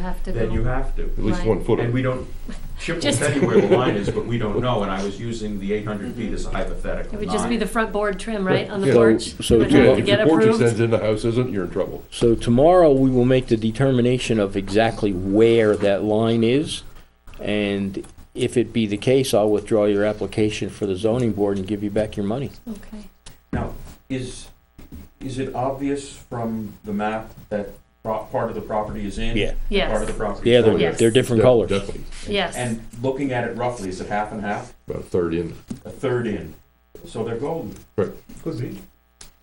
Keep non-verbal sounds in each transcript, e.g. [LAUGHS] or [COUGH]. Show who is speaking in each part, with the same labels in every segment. Speaker 1: have to
Speaker 2: then you
Speaker 1: go.
Speaker 2: have to.
Speaker 3: At least
Speaker 1: Right.
Speaker 3: one
Speaker 2: And
Speaker 3: footer.
Speaker 2: we don't, Chip will
Speaker 1: Just-
Speaker 2: tell you where the line is, but we don't know, and I was using the eight hundred feet as a hypothetical.
Speaker 1: It would just be
Speaker 2: not-
Speaker 1: the front board trim, right, on the
Speaker 3: Yeah.
Speaker 1: porch?
Speaker 4: So- so
Speaker 1: Would
Speaker 4: to-
Speaker 1: have to
Speaker 3: If
Speaker 1: get
Speaker 3: your porch
Speaker 1: approved?
Speaker 3: extends in the house isn't, you're in trouble.
Speaker 4: So tomorrow, we will make the determination of exactly where that line is, and if it be the case, I'll withdraw your application for the zoning board and give you back your money.
Speaker 1: Okay.
Speaker 2: Now, is, is it obvious from the map that pro- part of the property is in?
Speaker 4: Yeah.
Speaker 2: Part of
Speaker 1: Yes,
Speaker 2: the property
Speaker 4: Yeah,
Speaker 2: is
Speaker 4: they're,
Speaker 2: not?
Speaker 1: Yes.
Speaker 4: they're different
Speaker 3: De-
Speaker 4: colors.
Speaker 3: Definitely,
Speaker 1: yes.
Speaker 2: And looking at it roughly, is it half and half?
Speaker 3: about a third in,
Speaker 2: A third in? So they're golden.
Speaker 5: Could be.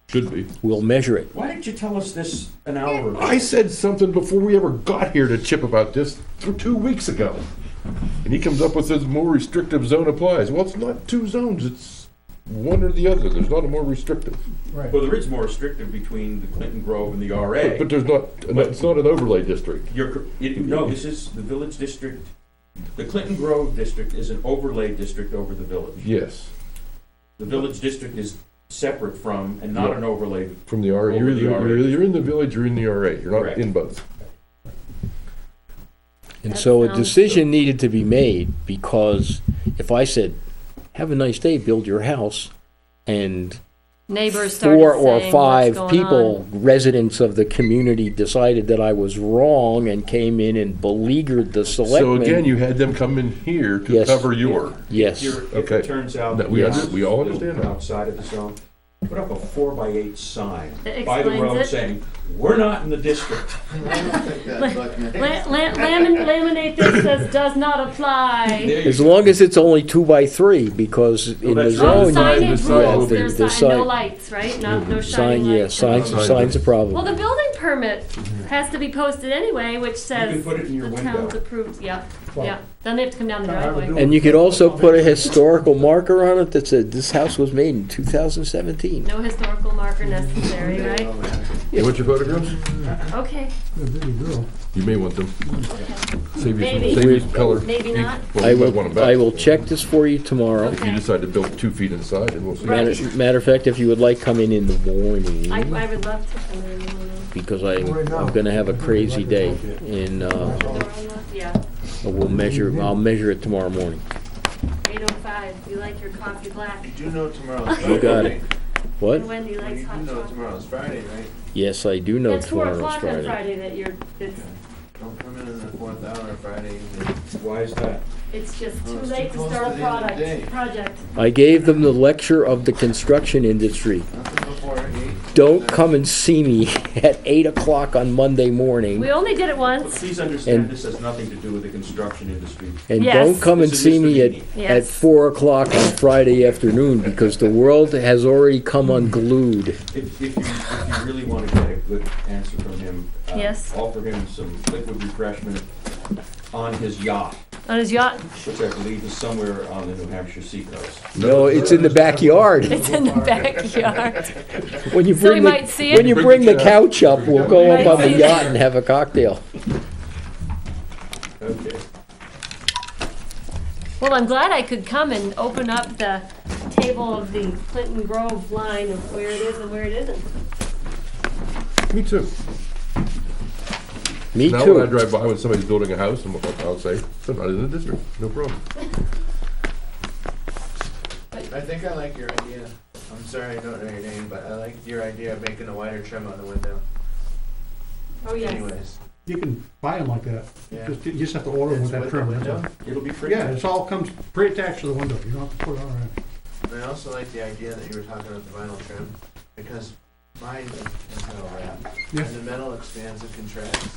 Speaker 3: should be.
Speaker 4: We'll measure it.
Speaker 2: Why didn't you tell us this an hour ago?
Speaker 3: I said something before we ever got here to Chip about this th- two weeks ago. And he comes up with this more restrictive zone applies. Well, it's not two zones, it's one or the other. There's not a more restrictive.
Speaker 5: Right.
Speaker 2: Well, there is more restrictive between the Clinton Grove and the RA.
Speaker 3: But there's not, it's not an overlay district.
Speaker 2: You're, cor- it- no, this is the village district. The Clinton Grove district is an overlay district over the village.
Speaker 3: Yes,
Speaker 2: The village district is separate from and not an overlay.
Speaker 3: from the RA. You're
Speaker 2: Over the
Speaker 3: either,
Speaker 2: RA.
Speaker 3: you're either in the village or in the RA. You're not
Speaker 2: Correct.
Speaker 3: in both.
Speaker 4: And
Speaker 1: That
Speaker 4: so a
Speaker 1: sounds-
Speaker 4: decision needed to be made, because if I said, have a nice day, build your house, and
Speaker 1: Neighbors started
Speaker 4: four or
Speaker 1: saying, "What's
Speaker 4: five
Speaker 1: going
Speaker 4: people,
Speaker 1: on?"
Speaker 4: residents of the community, decided that I was wrong and came in and beleaguered the
Speaker 3: So again,
Speaker 4: selectmen.
Speaker 3: you had them come in here to
Speaker 4: Yes.
Speaker 3: cover your.
Speaker 4: Yes.
Speaker 2: Here, If
Speaker 3: Okay.
Speaker 2: it turns out.
Speaker 3: That we
Speaker 2: the
Speaker 3: under-
Speaker 2: house
Speaker 3: we all
Speaker 2: is built
Speaker 3: understand that.
Speaker 2: Outside of the zone, put up a four by eight sign
Speaker 1: That
Speaker 2: by the
Speaker 1: explains
Speaker 2: road
Speaker 1: it.
Speaker 2: saying, we're not in the district.
Speaker 1: La- la- lamin- Laminate this says does not apply.
Speaker 2: There you
Speaker 4: As
Speaker 2: go.
Speaker 4: long as it's only two by three, because in the
Speaker 2: that's
Speaker 4: zone.
Speaker 1: No
Speaker 2: right.
Speaker 3: sign
Speaker 4: you-
Speaker 1: signage
Speaker 3: is
Speaker 1: rules,
Speaker 3: over.
Speaker 1: there's
Speaker 4: The
Speaker 1: sign, no
Speaker 4: sign-
Speaker 1: lights, right? Not, no
Speaker 4: Sign,
Speaker 1: shining
Speaker 4: yeah,
Speaker 1: lights.
Speaker 4: signs,
Speaker 3: Sign.
Speaker 4: signs a
Speaker 1: Well,
Speaker 4: problem.
Speaker 1: the building permit has to be posted anyway, which says.
Speaker 2: can put it in your
Speaker 1: The
Speaker 2: window.
Speaker 1: town's approved, yeah,
Speaker 5: Well-
Speaker 1: yeah. Then they have to come down the
Speaker 5: Now, I would
Speaker 1: driveway.
Speaker 5: do-
Speaker 4: And you could also put a historical marker on it that said, this house was made in two thousand seventeen.
Speaker 1: No historical marker necessary, right?
Speaker 3: You want your photographs?
Speaker 1: Okay,
Speaker 3: You may want them. Save you some,
Speaker 1: Maybe.
Speaker 3: save you some color.
Speaker 1: Maybe
Speaker 3: ink.
Speaker 1: not.
Speaker 3: Well,
Speaker 4: I
Speaker 3: you might want 'em
Speaker 4: will,
Speaker 3: back.
Speaker 4: I will check this for you tomorrow.
Speaker 1: Okay.
Speaker 3: If you decide to build two feet inside, and we'll see.
Speaker 1: Right.
Speaker 4: Matter, matter of fact, if you would like, come in in the
Speaker 1: I,
Speaker 4: morning,
Speaker 1: I would love to come in. and-
Speaker 4: because I,
Speaker 5: Right now.
Speaker 4: I'm gonna have a crazy day. And, uh,
Speaker 1: Yeah,
Speaker 4: we'll measure, I'll measure it tomorrow morning.
Speaker 1: eight oh five. You like your coffee black.
Speaker 6: do know tomorrow's
Speaker 4: You got
Speaker 6: Friday,
Speaker 4: it. What?
Speaker 1: And Wendy
Speaker 6: right?
Speaker 1: likes
Speaker 6: You do
Speaker 1: hot
Speaker 6: know
Speaker 1: chocolate.
Speaker 6: tomorrow's Friday, right?
Speaker 4: Yes, I do know
Speaker 1: It's four
Speaker 4: tomorrow's
Speaker 1: o'clock on
Speaker 4: Friday.
Speaker 1: Friday that you're, it's,
Speaker 6: Don't come in in the fourth hour Friday evening.
Speaker 2: Why is that?
Speaker 1: it's just
Speaker 6: Oh,
Speaker 1: too
Speaker 6: it's too
Speaker 1: late to
Speaker 6: close
Speaker 1: start
Speaker 6: to
Speaker 1: a
Speaker 6: the end of the day.
Speaker 1: product,
Speaker 4: [LAUGHS]
Speaker 1: project.
Speaker 4: I gave them the lecture of the construction industry.
Speaker 6: Nothing before eight.
Speaker 4: Don't come and see me [LAUGHS] at eight o'clock on Monday morning.
Speaker 1: We only did it once,
Speaker 2: Please understand,
Speaker 4: And-
Speaker 2: this has nothing to do with the construction industry.
Speaker 4: And
Speaker 1: Yes.
Speaker 4: don't come and
Speaker 2: This is
Speaker 4: see me
Speaker 2: Mr.
Speaker 4: at, at
Speaker 1: yes.
Speaker 4: four o'clock on Friday afternoon because the world has already come unglued.
Speaker 2: If, if you, if you really want to get a good answer from him. uh,
Speaker 1: Yes.
Speaker 2: Offer him some liquid refreshment on his yacht,
Speaker 1: On his
Speaker 6: [LAUGHS]
Speaker 1: yacht,
Speaker 2: which I believe is somewhere on the New Hampshire seacoast.
Speaker 4: No, it's in
Speaker 1: [LAUGHS]
Speaker 4: the backyard. [LAUGHS]
Speaker 1: it's in the backyard.
Speaker 4: When
Speaker 1: [LAUGHS]
Speaker 4: you
Speaker 1: So he
Speaker 4: bring,
Speaker 1: might
Speaker 4: the-
Speaker 1: see
Speaker 4: when
Speaker 1: it.
Speaker 4: you bring the couch up, we'll go up on
Speaker 1: Might
Speaker 4: the
Speaker 1: see it.
Speaker 4: yacht and have a cocktail.
Speaker 2: Okay.
Speaker 1: Well, I'm glad I could come and open up the table of the Clinton Grove line of where it is and where it isn't.
Speaker 3: Me too.
Speaker 4: Me
Speaker 3: Now when I
Speaker 4: too.
Speaker 3: drive by when somebody's building a house, I'm- "Oh, I'll say, they're not in the district, no problem.
Speaker 6: I think I like your idea. I'm sorry I don't know your name, but I like your idea of making a wider trim on the window
Speaker 1: Oh, yes.
Speaker 6: anyways.
Speaker 5: You can buy them like that.
Speaker 6: Yeah.
Speaker 5: Just, you just have to order them
Speaker 6: It's
Speaker 5: with that
Speaker 6: with the
Speaker 5: trim. that's
Speaker 6: window.
Speaker 5: all.
Speaker 2: It'll be free.
Speaker 5: Yeah, it's all comes pre-attached to the window. You don't have to put it on or anything.
Speaker 6: And I also like the idea that you were talking about the vinyl trim, because mine is metal wrap.
Speaker 5: Yeah.
Speaker 6: And the metal expands and contracts.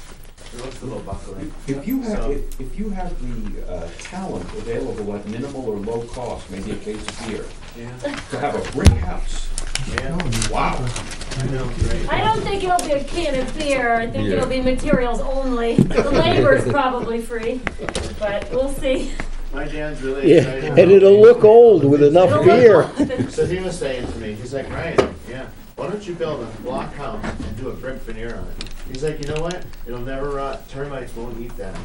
Speaker 6: It looks a little buckling.
Speaker 2: If you have,
Speaker 6: So-
Speaker 2: if, if you have the uh, talent available at minimal or low cost, maybe a case of beer,
Speaker 6: Yeah,
Speaker 2: to have a brick house,
Speaker 6: yeah.
Speaker 2: wow.
Speaker 6: I know, right?
Speaker 1: I don't think it'll be a can of beer, I think
Speaker 3: Yeah.
Speaker 1: it'll be materials only.
Speaker 4: [LAUGHS]
Speaker 1: The labor's probably free, but we'll see.
Speaker 6: My dad's really
Speaker 4: [LAUGHS] Yeah,
Speaker 6: excited.
Speaker 4: and it'll look old with enough
Speaker 1: It'll
Speaker 4: beer.
Speaker 1: look-
Speaker 6: So he was saying to me, he's like, Ryan, yeah, why don't you build a block house and do a brick veneer on it? He's like, you know what? It'll never rot. Termites won't eat that. I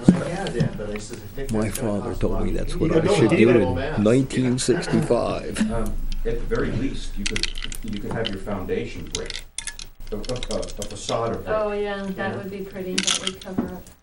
Speaker 6: was like, yeah, Dad, but I said, I think
Speaker 4: My
Speaker 6: that's gonna
Speaker 4: father
Speaker 6: cost a
Speaker 4: told me
Speaker 6: lot."
Speaker 4: that's
Speaker 6: You
Speaker 4: what
Speaker 6: need
Speaker 4: I
Speaker 6: a
Speaker 4: should do
Speaker 6: buildable
Speaker 4: in
Speaker 6: mass.
Speaker 4: nineteen sixty-five.
Speaker 2: Um, At the very least, you could, you could have your foundation brick, a a- a- a facade of brick.
Speaker 1: Oh, yeah, that would be pretty, that would cover up.